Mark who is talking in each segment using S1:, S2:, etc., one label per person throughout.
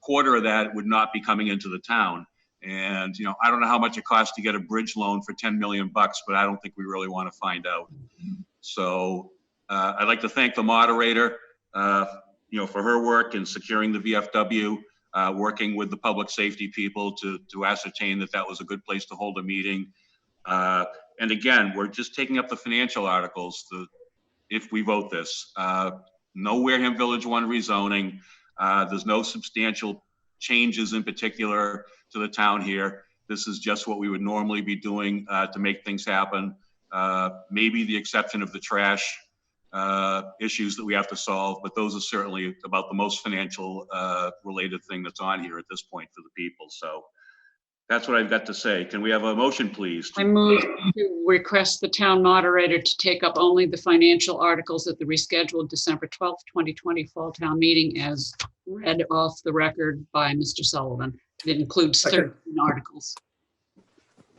S1: quarter of that would not be coming into the town. And, you know, I don't know how much it costs to get a bridge loan for 10 million bucks, but I don't think we really want to find out. So uh, I'd like to thank the moderator, uh, you know, for her work in securing the VFW, uh, working with the public safety people to, to ascertain that that was a good place to hold a meeting. Uh, And again, we're just taking up the financial articles, the, if we vote this. Uh, No Wareham Village One rezoning, Uh, there's no substantial changes in particular to the town here. This is just what we would normally be doing uh, to make things happen. Uh, Maybe the exception of the trash uh, issues that we have to solve, but those are certainly about the most financial uh, related thing that's on here at this point for the people. So that's what I've got to say. Can we have a motion, please? to
S2: I move to request the town moderator to take up only the financial articles at the rescheduled December 12th, 2020 Fall Town Meeting as read off the record by Mr. Sullivan. It includes 13 articles.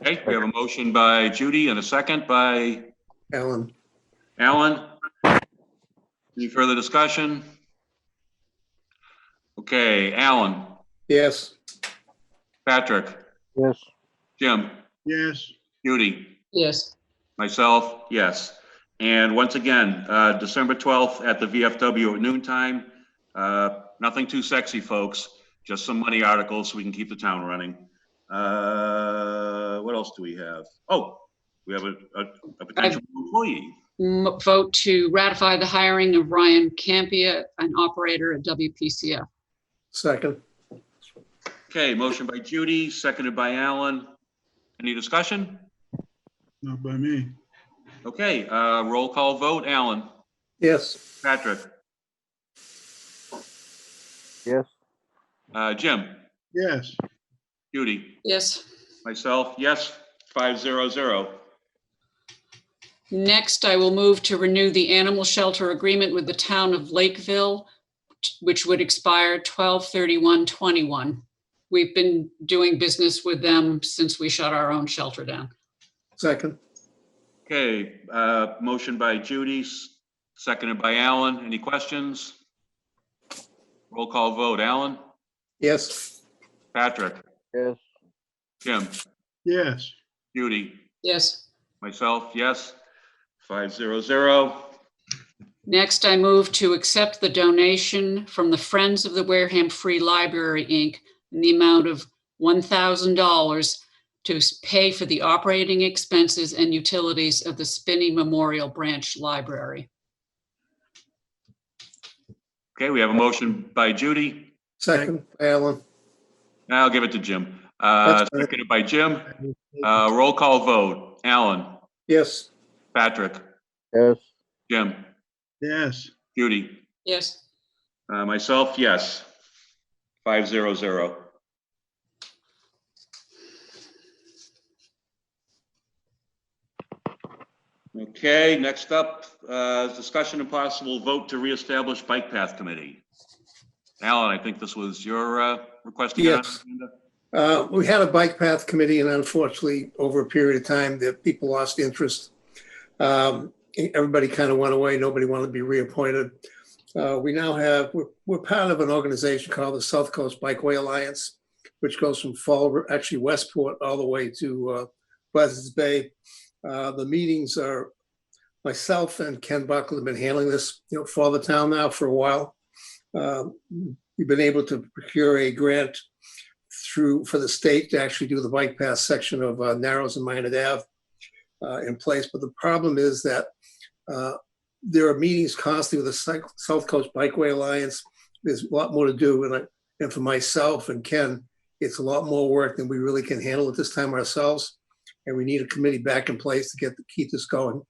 S1: Okay, we have a motion by Judy and a second by
S3: Ellen,
S1: Alan. Any further discussion? Okay, Alan,
S3: yes,
S1: Patrick,
S4: Yes.
S1: Jim,
S4: Yes.
S1: Judy,
S2: Yes,
S1: myself, yes. And once again, uh, December 12th at the VFW at noon time. Uh, Nothing too sexy, folks, just some money articles so we can keep the town running. Uh, What else do we have? Oh, we have a, a- a potential employee.
S2: M- vote to ratify the hiring of Ryan Campia, an operator at WPCF.
S3: second,
S1: Okay, motion by Judy, seconded by Alan. Any discussion?
S4: Not by me.
S1: Okay, uh, roll call vote, Alan,
S3: yes,
S1: Patrick,
S4: Yes.
S1: uh, Jim,
S4: Yes.
S1: Judy,
S2: Yes.
S1: myself, yes, five zero zero.
S2: Next, I will move to renew the animal shelter agreement with the town of Lakeville, which would expire 12/31/21. We've been doing business with them since we shut our own shelter down.
S3: second,
S1: Okay, uh, motion by Judy, s- seconded by Alan. Any questions? Roll call vote, Alan,
S3: yes,
S1: Patrick,
S4: Yes.
S1: Jim,
S4: Yes.
S1: Judy,
S2: Yes.
S1: myself, yes, five zero zero.
S2: Next, I move to accept the donation from the Friends of the Wareham Free Library, Inc. in the amount of $1,000 to s- pay for the operating expenses and utilities of the Spinney Memorial Branch Library.
S1: Okay, we have a motion by Judy,
S3: second, Ellen,
S1: I'll give it to Jim. Uh,
S3: That's fine.
S1: Seconded by Jim. Uh, Roll call vote. Alan,
S3: yes,
S1: Patrick,
S4: Yes.
S1: Jim,
S4: Yes.
S1: Judy,
S2: Yes.
S1: uh, myself, yes. Five zero zero. Okay, next up, uh, discussion and possible vote to reestablish bike path committee. Alan, I think this was your uh, request. to get on
S3: Yes.
S1: the agenda?
S3: Uh, we had a bike path committee and unfortunately, over a period of time, that people lost interest. Um, everybody kind of went away. Nobody wanted to be reappointed. Uh, we now have, we're, we're part of an organization called the South Coast Bikeway Alliance, which goes from Fall, actually Westport, all the way to, uh, Buzzards Bay. Uh, the meetings are, myself and Ken Buckle have been handling this, you know, for the town now for a while. Um, we've been able to procure a grant through, for the state to actually do the bike path section of uh, Narrows and Minot Ave uh, in place. But the problem is that uh, there are meetings constantly with the Cyc- South Coast Bikeway Alliance. There's a lot more to do. And I, and for myself and Ken, it's a lot more work than we really can handle at this time ourselves. And we need a committee back in place to get, to keep this going.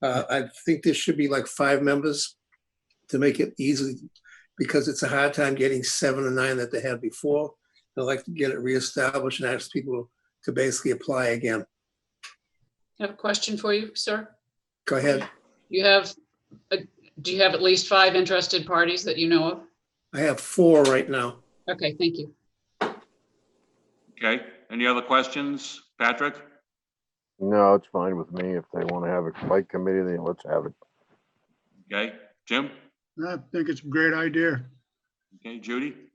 S3: Uh, I think there should be like five members to make it easy because it's a hard time getting seven or nine that they had before. I'd like to get it reestablished and ask people to basically apply again.
S2: I have a question for you, sir.
S3: Go ahead.
S2: You have, uh, do you have at least five interested parties that you know of?
S3: I have four right now.
S2: Okay, thank you.
S1: Okay, any other questions? Patrick?
S5: No, it's fine with me. If they want to have a bike committee, then let's have it.
S1: Okay, Jim?
S4: I think it's a great idea.
S1: Okay, Judy?